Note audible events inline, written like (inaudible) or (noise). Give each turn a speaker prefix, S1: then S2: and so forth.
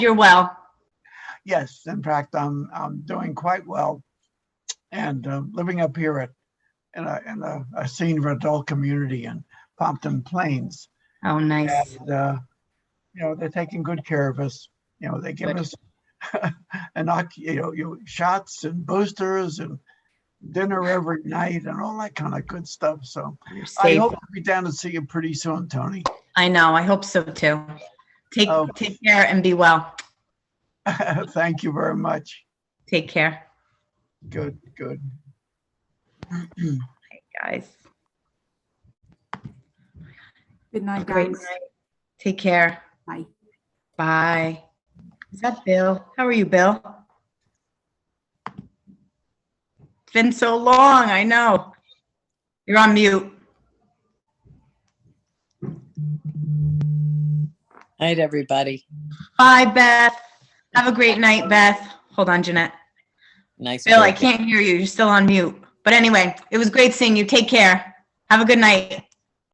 S1: You're well.
S2: Yes, in fact, I'm, I'm doing quite well and uh, living up here at, in a, in a, a senior adult community in Pompton Plains.
S1: Oh, nice.
S2: And, uh, you know, they're taking good care of us. You know, they give
S1: Good.
S2: us (laughs) inoc, you know, you shots and boosters and dinner every night and all that kind of good stuff. So
S1: You're
S2: I
S1: safe.
S2: hope to be down to see you pretty soon, Tony. (laughs)
S1: I know. I hope so too. Take,
S2: Oh.
S1: take care and be well.
S2: Thank you very much.
S1: Take care,
S2: Good, good.
S1: guys.
S3: Good night,
S1: Great
S3: guys.
S1: night. Take care.
S3: Bye.
S1: Bye. Is that Bill? How are you, Bill? It's been so long. I know. You're on mute.
S4: Night, everybody.
S1: Bye, Beth. Have a great night, Beth. Hold on, Jeanette.
S4: Nice.
S1: Bill, I
S4: work.
S1: can't hear you. You're still on mute. But anyway, it was great seeing you. Take care. Have a good night.